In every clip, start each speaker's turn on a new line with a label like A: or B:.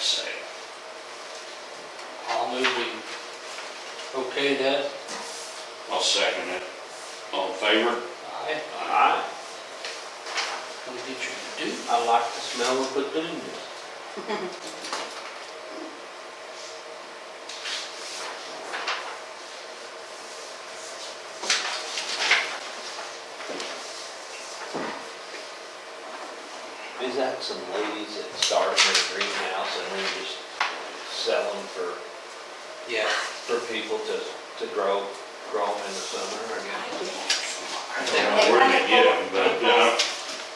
A: sale.
B: I'll move we okay that.
A: I'll second it. All in favor?
B: Aye.
A: Aye.
B: What did you do? I like the smell of petunias.
C: Is that some ladies that started their greenhouse and then just sell them for,
B: Yeah.
C: for people to, to grow, grow them in the summer, I guess?
A: I don't know where they get them, but, uh,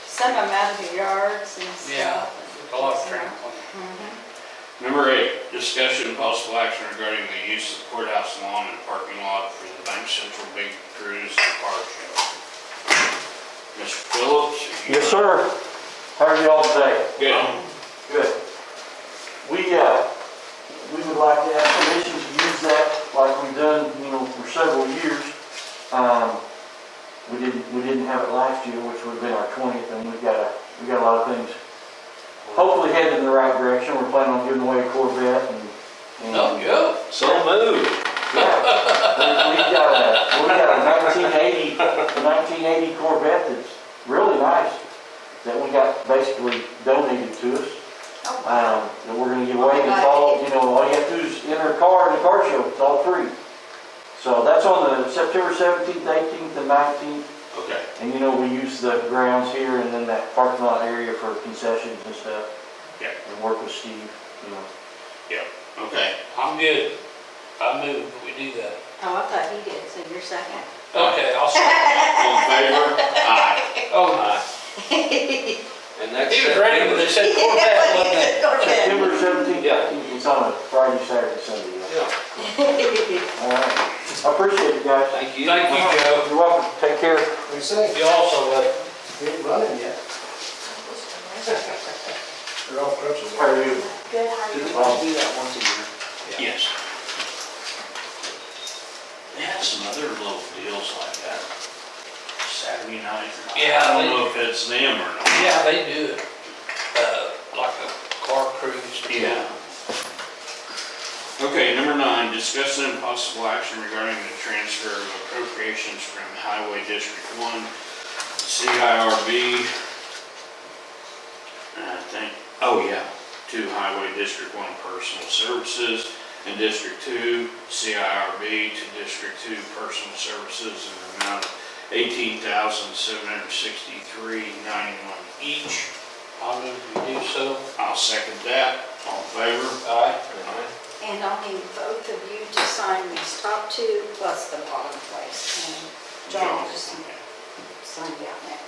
D: Send them out of the yards and
B: Yeah.
D: stuff.
B: A lot of trampling.
D: Mhm.
A: number eight, discussion of possible action regarding the use of courthouse lawn and parking lot for the Bank Central Big Cruise and Car Show. Mr. Phillips? you-
E: Yes, sir. How are y'all today?
A: Good.
E: Good. We, uh, we would like to have permission to use that like we've done, you know, for several years. Um, we didn't, we didn't have it last year, which would have been our twentieth, and we've got a, we got a lot of things
C: Oh,
E: hopefully headed in the right direction. We're planning on giving away a Corvette and. and-
B: No, yeah.
C: So moved.
E: Yeah. We- We've got a, we got a nineteen eighty, a nineteen eighty Corvette that's really nice, that we got basically donated to us
D: Oh, wow.
E: um, that we're gonna give away, and it's all, you know, all you have to do is enter a car in the car show, it's all free. So that's on the September seventeenth, eighteenth, and nineteenth,
A: Okay.
E: and you know, we use the grounds here and then that parking lot area for concessions and stuff.
A: Yeah.
E: And work with Steve, you know.
A: Okay.
B: I'm good. I move we do that.
D: Oh, I thought he did, so you're second.
B: Okay, I'll second.
A: All in favor? Aye.
B: Oh, my.
C: And next.
B: He was ready when they said Corvette, wasn't it?
D: Okay.
E: September seventeenth,
C: Yeah.
E: eighteenth, it's on a Friday, Saturday, Sunday, yeah.
C: Yeah,
E: All right, I appreciate you guys.
C: thank you.
B: Thank you, Joe.
E: You're welcome, take care.
F: We say,
B: You also, uh,
F: we ain't running yet. They're all crutches.
E: How are you?
D: Good, how are you?
E: Well,
C: do that once a year.
A: Yes. They had some other little deals like that. Saturday night.
B: Yeah,
A: I
B: they-
A: don't know if it's them or not.
B: yeah, they do it, uh, like a car cruise.
A: Yeah. Okay, number nine, discuss and possible action regarding the transfer of appropriations from Highway District One, CIRB. I think, oh yeah, to Highway District One Personal Services and District Two, CIRB to District Two Personal Services in the amount of eighteen thousand seven hundred sixty-three ninety-one each.
B: I move we do so.
A: I'll second that. All in favor?
B: All right.
D: And I'll need both of you to sign these top two plus the bottom place. And John will just sign down there.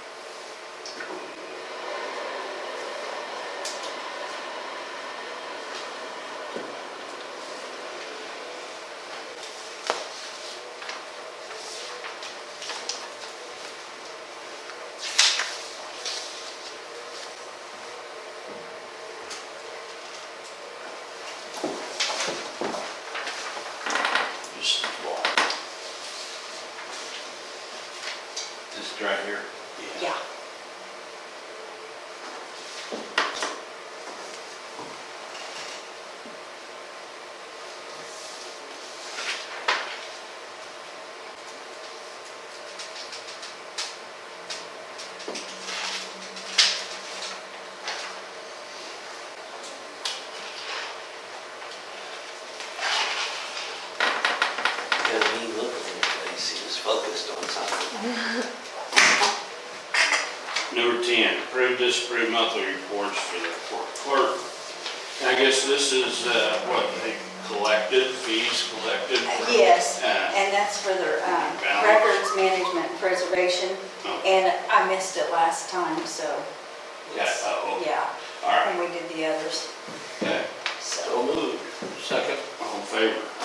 A: Just walk.
C: Just right here.
D: Yeah.
C: Because he looked at the place, he was focused on something.
A: Number ten, approve, disapprove monthly reports for the court clerk. I guess this is, uh, what they collected, fees collected
D: Uh,
A: for.
D: Yes,
A: Uh,
D: and that's for the um,
A: Balance.
D: records management and preservation.
A: oh,
D: And I missed it last time, so.
A: Yeah, oh,
D: Yeah,
A: all right,
D: and we did the others,
A: okay.
D: so.
A: So moved.
B: Second.
A: All in favor?